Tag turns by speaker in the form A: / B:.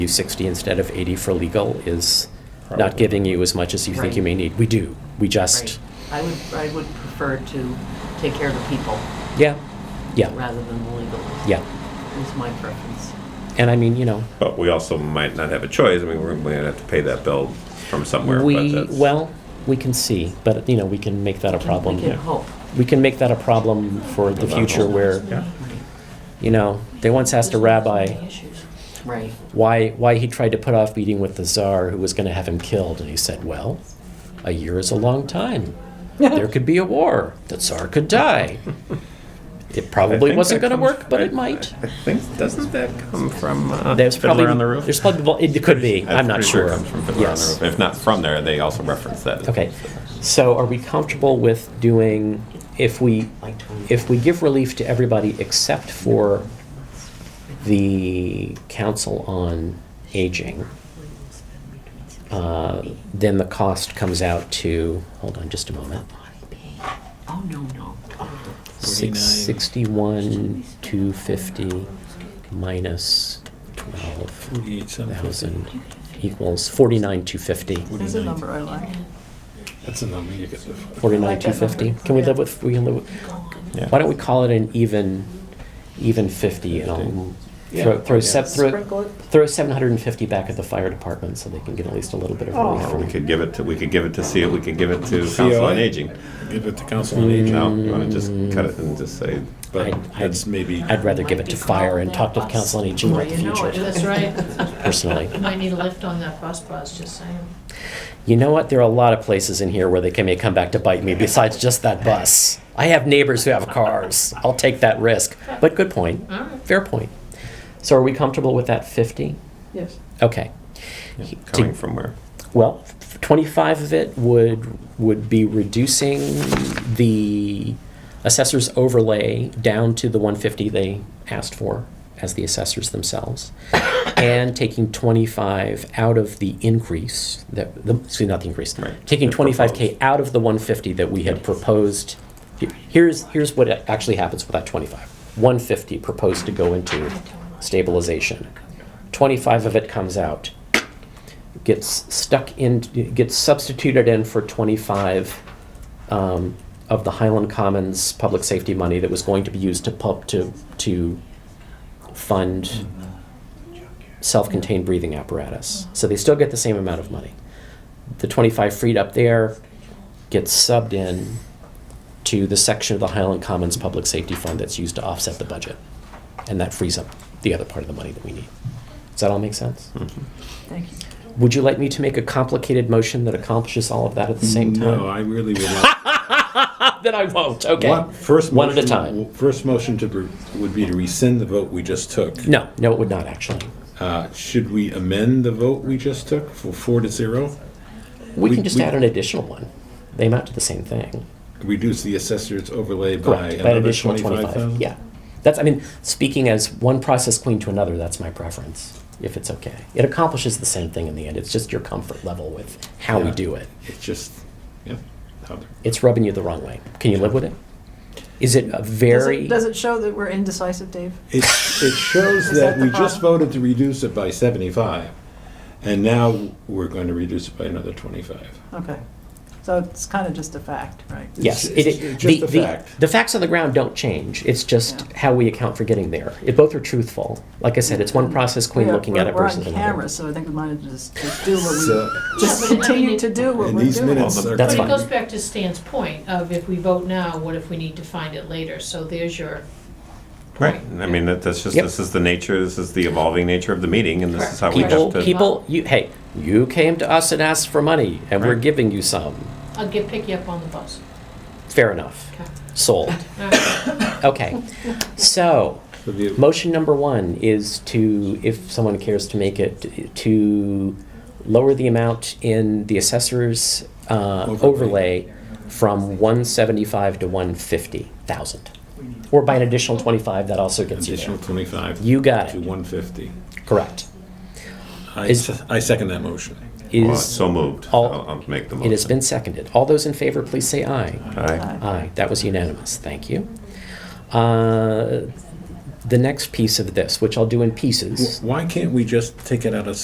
A: you 60 instead of 80 for legal is not
B: Probably.
A: giving you as much as you think you may
C: Right.
A: need. We do, we
C: Right.
A: just,
C: I would, I would prefer to take care of the people
A: yeah, yeah,
C: rather than the legal,
A: yeah.
C: is my preference.
A: And I mean, you know,
B: But we also might not have a choice. I mean, we're going to have to pay that bill from somewhere. but
A: we,
B: that's-
A: well, we can see, but, you know, we can make that a
C: We can-
A: problem.
C: We can hope.
A: We can make that a problem for the
B: Well,
A: future where,
B: Yeah.
A: you know, they once asked a rabbi
C: Right,
A: why, why he tried to put off meeting with the czar who was going to have him killed. And he said, well, a year is a long time. There could be a war. The czar could die. It
B: I
A: probably
B: think
A: wasn't
B: that
A: going to
B: comes-
A: work, but
B: I-
A: it might.
B: I think, doesn't that come from uh,
A: There's probably
B: Fiddler on the Roof?
A: There's probably vol- it could be. I'm not
B: pretty
A: sure.
B: It comes from Fiddler on the
A: yes.
B: Roof. If not from there, they also reference that.
A: Okay. So are we comfortable with doing if we
C: like twenty.
A: if we give relief to everybody except for the council on aging, uh, then the cost comes out to hold on just a moment.
C: Oh, no, no.
A: Six sixty-one two fifty minus twelve thousand equals forty-nine two fifty.
C: There's a number I like.
D: That's a number you get the.
A: Forty-nine, two fifty. Can we live with, we can live with, why don't we call it an even, even fifty and I'll throw, throw, se- throw, throw seven hundred and fifty back at the fire department so they can get at least a little bit of
C: Oh.
A: relief.
B: Or
A: from
B: we
A: it.
B: could give it to, we could give it to see we could give it to Council on
D: COA?
B: Aging.
D: Give it to council on
A: Mm.
D: aging,
B: No, you want to just cut it and just say,
D: but
A: I'd- I'd-
D: that's maybe.
A: I'd rather give it to fire and talk to the council on aging
C: Well,
A: about the
C: you know
A: future,
C: it.
E: That's right.
A: personally.
E: You might need a lift on that bus bus, just saying.
A: You know what? There are a lot of places in here where they can may come back to bite me besides just that bus. I have neighbors who have cars. I'll take that risk. But good point.
E: All right.
A: Fair point. So are we comfortable with that fifty?
C: Yes.
A: Okay.
B: yeah,
A: To-
B: coming from where?
A: Well, f- 25 of it would, would be reducing the assessor's overlay down to the 150 they asked for as the assessors themselves, and taking 25 out of the increase, that, the- excuse me, not the increase,
B: Right.
A: taking
B: The
A: 25K
B: proposed.
A: out of the 150 that we had proposed. Here- Here's, here's what actually happens with that 25. 150 proposed to go into stabilization. 25 of it comes out gets stuck in, gets substituted in for 25 um, of the Highland Commons public safety money that was going to be used to pump to to fund self-contained breathing apparatus. So they still get the same amount of money. The 25 freed up there gets subbed in to the section of the Highland Commons public safety fund that's used to offset the budget, and that frees up the other part of the money that we need. Does that all make sense?
C: Thank you.
A: Would you like me to make a complicated motion that accomplishes all of that at the same time?
D: No, I really would like.
A: Then I won't. Okay.
D: One- first
A: One at a
D: motion-
A: time.
D: First motion to, br- would be to rescind the vote we just took.
A: No, no, it would not actually.
D: Uh, Should we amend the vote we just took for four to zero?
A: We,
D: We-
A: can just
D: we-
A: add an additional one. They amount to the same thing.
D: Reduce the assessor's overlay by
A: Correct. By an
D: another
A: additional
D: twenty-five
A: 25.
D: thousand?
A: Yeah. That's, I mean, speaking as one process queen to another, that's my preference, if it's okay. It accomplishes the same thing in the end. It's just your comfort level with how we
D: Yeah.
A: do it.
D: It just, yeah. how the-
A: It's rubbing you the wrong way. Can you live with it? Is it a
F: Does
A: very.
F: it, does it show that we're indecisive, Dave?
D: It, it shows that
F: that
D: we
F: the
D: just
F: problem?
D: voted to reduce it by seventy-five, and now we're going to reduce it by another twenty-five.
F: Okay. So it's kind of just a fact, right?
A: Yes,
D: It's-
A: it,
D: it's
A: it-
D: just
A: the,
D: a
A: the,
D: fact.
A: the facts on the ground don't change. It's just
F: Yeah.
A: how we account for getting there. It, both are truthful. Like I said, it's one process queen
F: We're-
A: looking at it
F: we're-
A: versus
F: We're on
A: another.
F: camera, so I think we might as well just, just do
D: So-
F: what we,
E: Yeah,
F: just
E: but I mean,
F: continue
E: it-
F: to do what
D: And
F: we're
D: these
F: doing.
D: minutes are.
A: That's
E: But it
A: fine.
E: goes back to Stan's point of if we vote now, what if we need to find it later? So there's your
B: Right,
E: point.
B: I mean, that- that's just,
A: Yep.
B: this is the nature, this is the evolving nature of the meeting, and this is how we
A: People,
B: have to.
A: people, you, hey, you came to us and asked for money, and we're
B: Right.
A: giving you some.
E: I'll get, pick you up on the bus.
A: Fair enough.
E: Okay.
A: Sold.
E: All right.
A: Okay. So,
D: So the-
A: motion number one is to, if someone cares to make it, to lower the amount in the assessor's uh,
D: Overlay.
A: overlay from 175 to 150,000. Or by an additional 25, that also gets you
D: Additional
A: there.
D: twenty-five.
A: You got
D: To
A: it.
D: one fifty.
A: Correct.
D: I,
A: Is-
D: s- I second that motion.
B: Well,
A: Is,
B: So moved.
A: all-
B: I'll I'll make the
A: it
B: motion.
A: has been seconded. All those in favor, please say aye.
B: Aye.
A: Aye, that was unanimous, thank you. Uh, the next piece of this, which I'll do in pieces.
D: Why can't we just take it out of